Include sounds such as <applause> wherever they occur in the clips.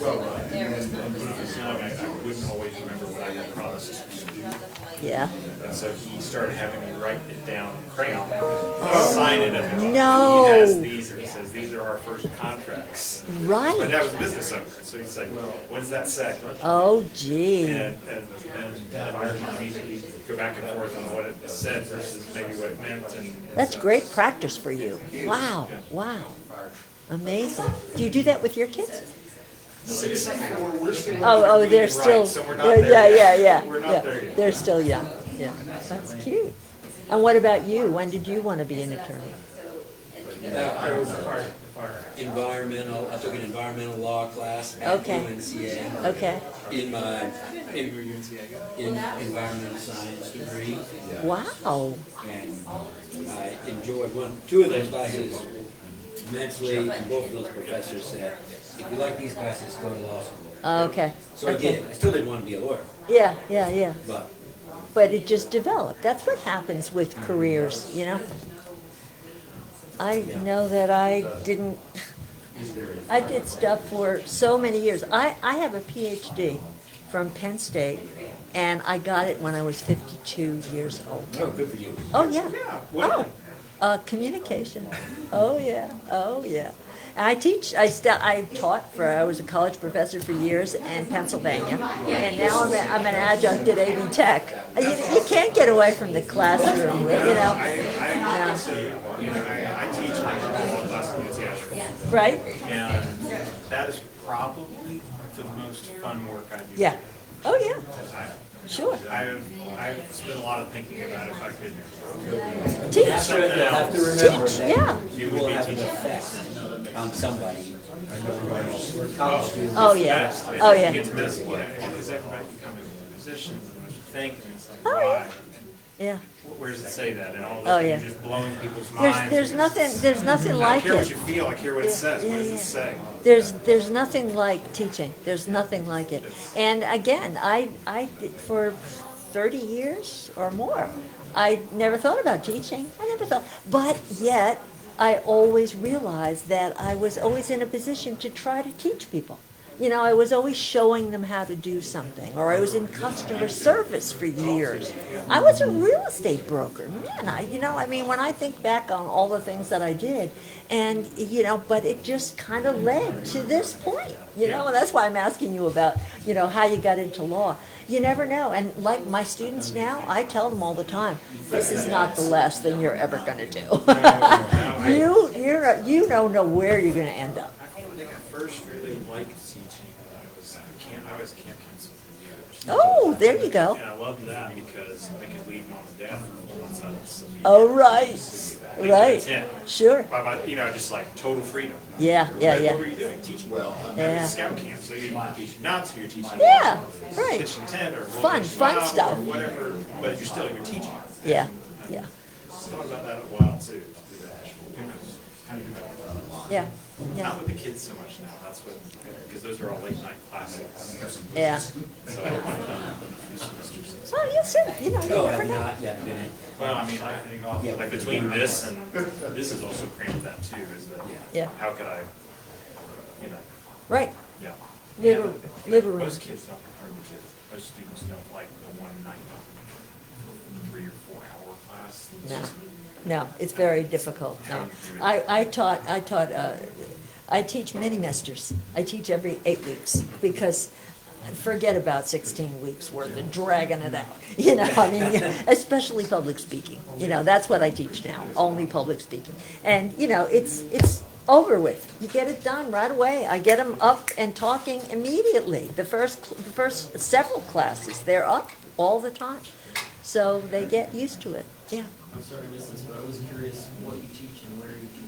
Well, right, There and is then, and purpose it's in not it. like I wouldn't always remember what I had promised. Yeah. And so he started having me write it down in crayon, sign it at the. No. He has these, and he says, these are our first contracts. But Right. that was business owner, so he's like, well, what does that say? Oh, gee. And, and, and I usually go back and forth on what it said versus maybe what it meant and. That's great practice for you. Wow. Wow. Amazing. Do you do that with your kids? Say something where we're still. Oh, oh, they're Right, still, So we're not they're- there. yeah, yeah, yet. yeah. We're yeah. not there yet. They're still young. Yeah. That's cute. And what about you? When did you want to be an attorney? Uh, I was Environmental, I took an environmental law class at Okay. UNCA Okay. in my, in in environmental science degree. Wow. And I enjoyed one, two of those classes immensely, and both of those professors said, if you like these classes, go to law school. Okay. So I did, I still didn't want to be a lawyer, Yeah, yeah, yeah. but But it just developed. That's what happens with careers, you know? I know that I didn't, I did stuff for so many years. I, I have a PhD from Penn State, and I got it when I was 52 years old. no, good for you. Oh, yeah. well- Oh, uh, communication. Oh, yeah. Oh, yeah. And I teach, I still, I taught for, I was a college professor for years in Pennsylvania. And now I'm, a, I'm an adjunct at AV Tech. You, you can't get away from the classroom, you I, know, I would say, you know, I, I teach law class in Seattle. right? And that is probably the most fun work I do. Yeah. Oh, yeah. I, Sure. I've, I've spent a lot of thinking about if I could, Teach. That's what you have to remember Teach, that yeah. You will have an effect on somebody. College students. Oh, yeah. that's, Oh, if you yeah. get to this point, because everybody can come into positions and what you think, and it's like, Oh, yeah. why? Yeah. Where does it say that? And all of Oh, a yeah. sudden, you're just blowing people's There's, minds. there's nothing, there's nothing I like care what it. you feel, I care what it Yeah, says, what yeah, does yeah. it say? There's, there's nothing like teaching. There's nothing like it. And again, I, I, did- for thirty years or more, I never thought about teaching. I never thought, but yet, I always realized that I was always in a position to try to teach people. You know, I was always showing them how to do something, or I was in customer service for years. I was a real estate broker. Man, I, you know, I mean, when I think back on all the things that I did, and, you know, but it just kind of led to this point, you know, and that's why I'm asking you about, you know, how you got into law. You never know. And like my students now, I tell them all the time, this is not the last thing you're ever going to do. <laughs> you, you're, you don't know where you're going to end up. I think I first really liked teaching when I was camp, I was camp counselor. Oh, there you go. And I loved that because I could leave mom and dad for once I was. Oh, right, right. Sure. By my, you know, just like total freedom. Yeah, yeah, What yeah. were you doing? Teaching. Well. Yeah. Scout camp, so you didn't teach not to, you're teaching. Yeah, right. Kitchen tent or. Fun, rolling fun shop stuff. Or whatever, but you're still, you're teaching. Yeah, yeah, Thought about that a while too. Who knows? How do you know? yeah, yeah, Not with the kids so much now, that's what, because those are all late night classes. yeah. So I don't want uh, to. Well, you'll see, you know, you No, never I've know. not yet been in. Well, I mean, I, like between this and, this is also crammed with that too, is that, Yeah. how could I, you know, Right. yeah. Live a- Yeah, but- live a room. Most kids don't, or the kids, most students don't like the one night, three or four hour class. It's No, just- no, it's very difficult, no. I, I taught, I taught, uh, I teach mini masters. I teach every eight weeks, because forget about sixteen weeks worth of dragging it out. <laughs> You know, I mean, especially public speaking, you know, that's what I teach now, only public speaking. And, you know, it's, it's over with. You get it done right away. I get them up and talking immediately. The first, the first several classes, they're up all the time. So they get used to it, yeah. I'm sorry, Mrs., but I was curious what you teach and where you teach.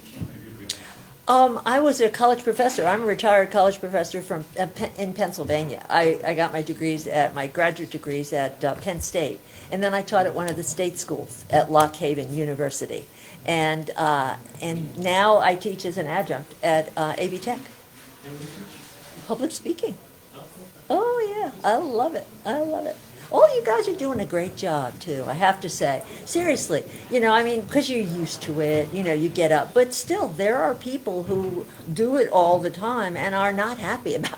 Um, I was a college professor. I'm a retired college professor from uh, Pe- in Pennsylvania. I, I got my degrees at my graduate degrees at uh, Penn State, and then I taught at one of the state schools at Lock Haven University, and uh, and now I teach as an adjunct at uh, AV Tech. Public speaking. Oh yeah, I love it. I love it. All you guys are doing a great job too. I have to say, seriously. You know, I mean, because you're used to it. You know, you get up, but still, there are people who do it all the time and are not happy <laughs> about